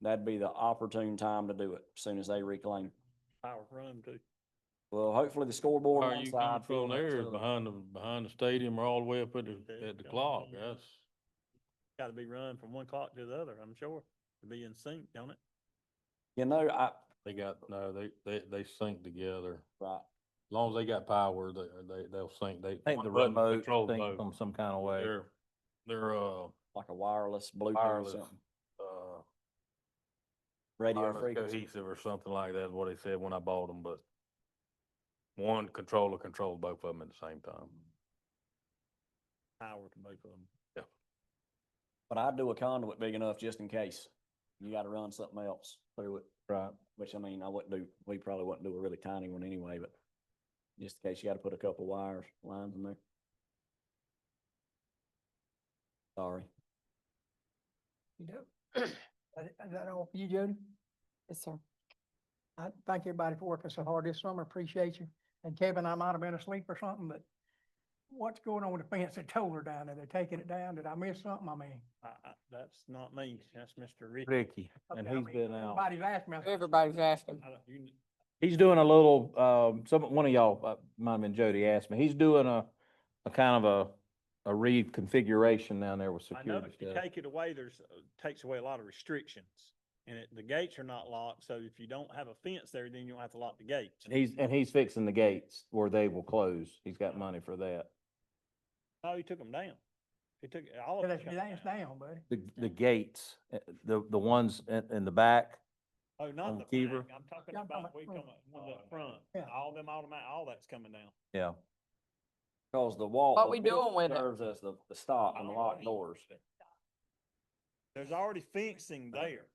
that'd be the opportune time to do it, as soon as they reclaim. Power run too. Well, hopefully the scoreboard Are on one you side. field on control the there other. behind the, behind the stadium or all the way up at the, Yeah, at the yeah. clock? That's, Gotta be run from one clock to the other, I'm sure, to be in sync, don't it? You know, I, they got, no, they, they, they sync together. right, As long as they got power, they, they, they'll sync. They. I think one the button remote controls thing both. from some kind of way. They're, they're, uh, like a wireless Bluetooth or wireless, something, uh, radio wireless frequency. cohesive or something like that, is what they said when I bought them, but one controller controlled both of them at the same time. Power to both of them. But I'd do a conduit big enough just in case. You gotta run something else through it, Right. which I mean, I wouldn't do, we probably wouldn't do a really tiny one anyway, but just in case you gotta put a couple wires, lines in there. Sorry. You know, I, I got off you, Jody. Yes, sir. I thank everybody for working so hard this summer. Appreciate you. And Kevin, I might have been asleep or something, but what's going on with the fence at Toller down there? They're taking it down. Did I miss something? I mean. I, I, that's not me, that's Mr. Ricky. Ricky, and okay, I he's mean, been out. Everybody's asked me. I said, Everybody's asking. I don't- you- He's doing a little, um, some, one of y'all, uh, might have been Jody asked me, he's doing a, a kind of a, a reconfiguration down there with I know security if you stuff. take it away, there's, uh, takes away a lot of restrictions. And it, the gates are not locked, so if you don't have a fence there, then you don't have to lock the gates. And he's, and he's fixing the gates where they will close. He's got money for that. Oh, he took them down. He took all of "That's- it. That's down, buddy. The, the gates, uh, the, the ones in, in the back, Oh, on not the back, Kiever. I'm talking Yeah, I'm talking about, about we come front. up, with the front, Yeah. all them automatic, all that's coming down. yeah. Cause the wall. What the we building doing with it? Serves as the, the stop and the locked doors. There's already fencing there.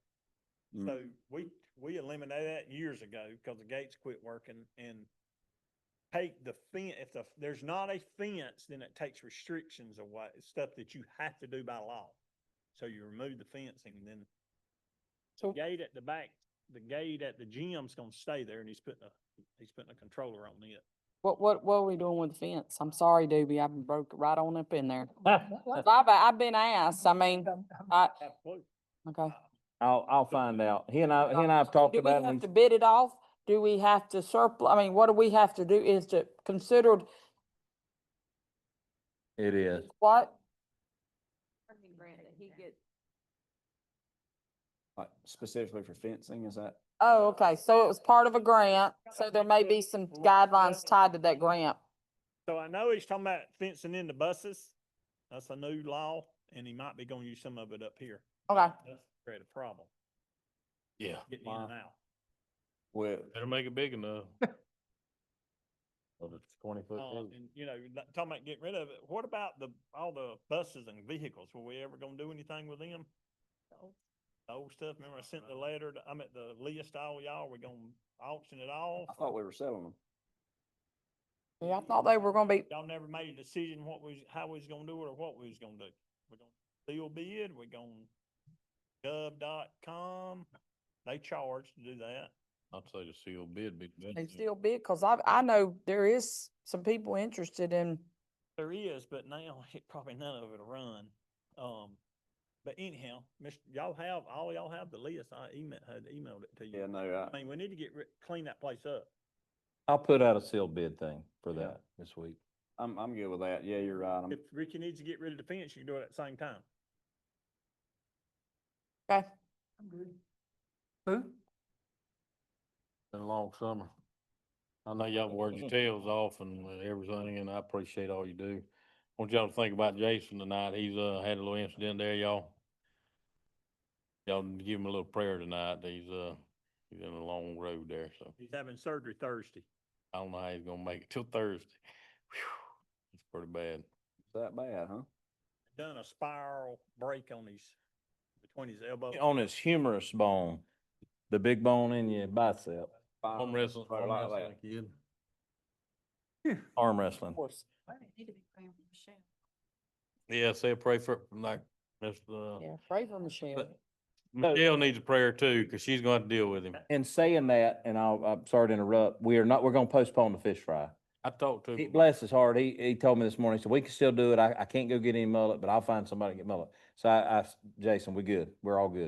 Mm. So we, we eliminated that years ago because the gates quit working and take the fence, if the, there's not a fence, then it takes restrictions away, stuff that you have to do by law. So you remove the fencing, then the So- gate at the back, the gate at the gym's gonna stay there and he's putting a, he's putting a controller on it. What, what, what are we doing with the fence? I'm sorry, Doobie, I've broke right on up in there. I'll, I've, I've been asked, I mean, I, Absolutely. okay. I'll find out. He and I, he and I have talked Do we about have it. to He's- bid it off? Do we have to surplus, I mean, what do we have to do is to considered It is. what? Like specifically for fencing, is that? Oh, okay, so it was part of a grant, so there may be some guidelines tied to that grant. So I know he's talking about fencing in the buses. That's a new law and he might be gonna use some of it up here. Okay. That's create a problem, Yeah. getting in and out. Well, Better make it big enough. Oh, Well, it's twenty foot. Uh, too. and you know, that- talking about getting rid of it, what about the, all the buses and vehicles? Were we ever gonna do anything with them? The old stuff, remember I sent the letter, to- I'm at the list, all y'all, we gonna auction it off? I thought we were selling them. Yeah, I thought they were gonna be, Y'all never made a decision what was, how we was gonna do it or what we was gonna do. We're gonna deal bid, we're gonna gov dot com. They charge to do that. I'd say the sealed bid be. the they best. still bid, cause I, I know there is some people interested in There is, but now it probably none of it'll run. Um, but anyhow, Mr., y'all have, all y'all have the list. I emailed, had emailed it to you. Yeah, no, I mean, we need to get, ri- clean that place up. I'll put out a sealed bid thing for Yeah. that this week. I, I'm, I'm good with that. Yeah, you're right. I'm- If Ricky needs to get rid of the fence, you can do it at the same time. Okay, Who? Been a long summer. I know y'all worked your tails off and everything, and I appreciate all you do. Want y'all to think about Jason tonight. He's, uh, had a little incident there, y'all. Y'all give him a little prayer tonight. He's, uh, he's in a long road there, so He's having surgery Thursday. I don't know how he's gonna make it till Thursday. Whew, It's pretty bad. It's that bad, huh? Done a spiral break on his, between his elbow. On his humerus bone, the big bone in your bicep, Arm Fine. wrestling, Right arm like wrestling kid. arm wrestling. of course. Yeah, say a prayer for, like, Mr. uh, Yeah, pray for Michelle. but Michelle needs a prayer too, cause she's gonna have to deal with him. In saying that, and I'll, I'm sorry to interrupt, we are not, we're gonna postpone the fish fry. I talked to He, him. bless his heart, he, he told me this morning, he said, we can still do it. I, I can't go get any mullet, but I'll find somebody to get mullet. So I, I s- Jason, we good. We're all good.